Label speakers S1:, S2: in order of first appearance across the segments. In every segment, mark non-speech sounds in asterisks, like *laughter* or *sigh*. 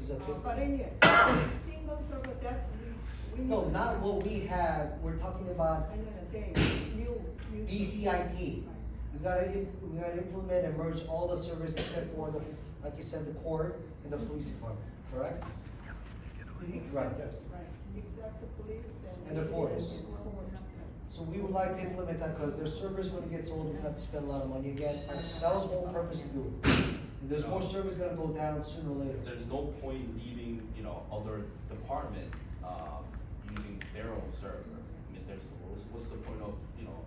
S1: is a different.
S2: But anyway, single server that we, we need.
S1: No,
S2: to-
S1: not what we have, we're talking about
S2: I understand, new, new.
S1: BCIT. We gotta, im- we gotta implement and merge all the services except for the, like you said, the court and the police department, correct? Right, yes.
S2: Right, except the police and.
S1: And the courts.
S2: and the court.
S1: So we would like to implement that, cause their servers when it gets old, we have to spend a lot of money again, that was one purpose to do it. And there's more servers gonna go down sooner or later.
S3: There's no point leaving, you know, other department, um, using their own server. I mean, there's, what's, what's the point of, you know,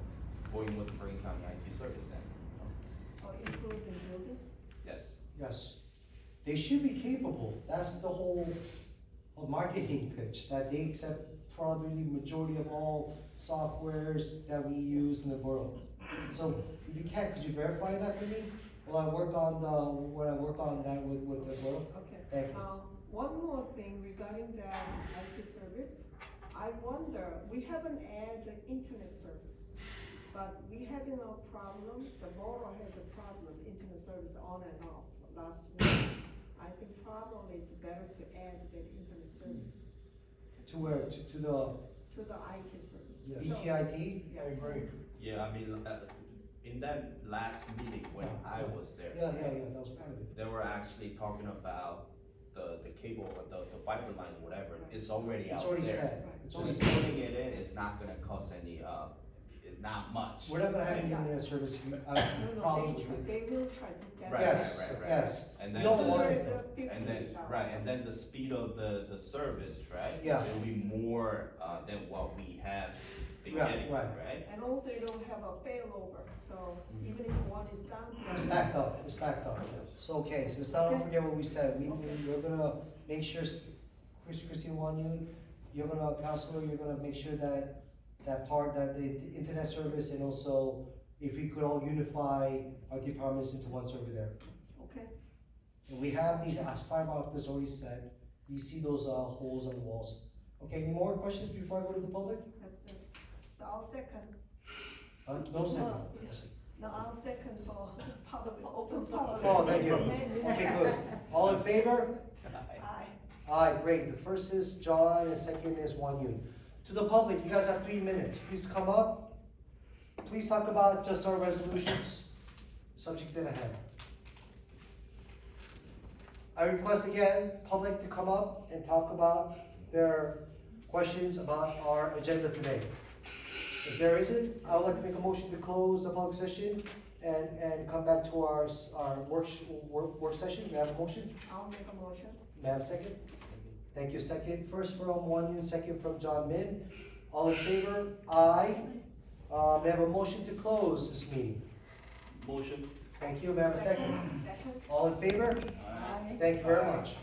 S3: going with Bergen County IT service then? you know?
S2: Or include the building.
S3: Yes,
S1: Yes. They should be capable, that's the whole of marketing pitch, that they accept probably majority of all softwares that we use in the world. So if you can, could you verify that for me? Well, I work on, uh, when I work on that with, with the world. Thank you.
S2: Okay, um, one more thing regarding the IT service. I wonder, we haven't added the internet service, but we having a problem, the borough has a problem, internet service on and off last week. I think probably it's better to add the internet service
S1: To where, to, to the E
S2: to the IT service.
S4: Yes.
S2: So-
S1: BTIT?
S2: Yeah.
S3: yeah, I mean, uh, in that last meeting when I was there.
S1: Yeah, yeah, yeah, that was part of it.
S3: They were actually talking about the, the cable, or the, the fiber line, whatever, it's already out there.
S1: It's already set, it's
S3: So
S1: already
S3: just
S1: set.
S3: putting it in is not gonna cost any, uh, not much.
S1: We're not gonna have any internet service, if you- uh,
S2: No, no,
S1: problems
S2: they
S1: with
S2: try,
S1: it.
S2: they will try to. that's-
S3: Right,
S1: Yes,
S3: right, right.
S1: yes. We
S3: And then
S1: don't
S3: the-
S1: want it though.
S3: And then, right, and then the speed of the, the service, right?
S1: Yeah.
S3: Will be more, uh, than what we have been
S1: Yeah,
S3: getting,
S1: right.
S3: right?
S2: And also you don't have a failover, so
S1: Mm-hmm.
S2: even if one is down. the
S1: It's
S2: other-
S1: *coughs* backed up, it's backed up. So, okay, so let's not forget what we said, we, we- we're gonna make sure, s- Chris, Christine Wan Yun, you're gonna, counselor, you're gonna make sure that, that part, that the int- internet service and also if we could all unify our departments into one server there.
S2: Okay,
S1: And we have these, as five officers already said, you see those, uh, holes on the walls. Okay, any more questions before I go to the public?
S2: that's it. So I'll second,
S1: Uh, no, sir. Yes.
S2: no, I'll second for public, open public.
S1: Oh, thank you. Okay, good. All in favor?
S2: Aye.
S1: Aye, great. The first is John and second is Wan Yun. To the public, you guys have three minutes. Please come up. Please talk about just our resolutions. Subject in hand. I request again, public to come up and talk about their questions about our agenda today. If there isn't, I would like to make a motion to close the public session and, and come back to our, s- our work, sh- work, work session. We have a motion?
S2: I'll make a motion.
S1: May I have a second? Thank you, second, first from Wan Yun, second from John Min. All in favor? Aye. Uh, may I have a motion to close this meeting?
S3: Motion?
S1: Thank you, may I have a second?
S2: Second.
S1: All in favor?
S2: Aye.
S1: Thank you very much.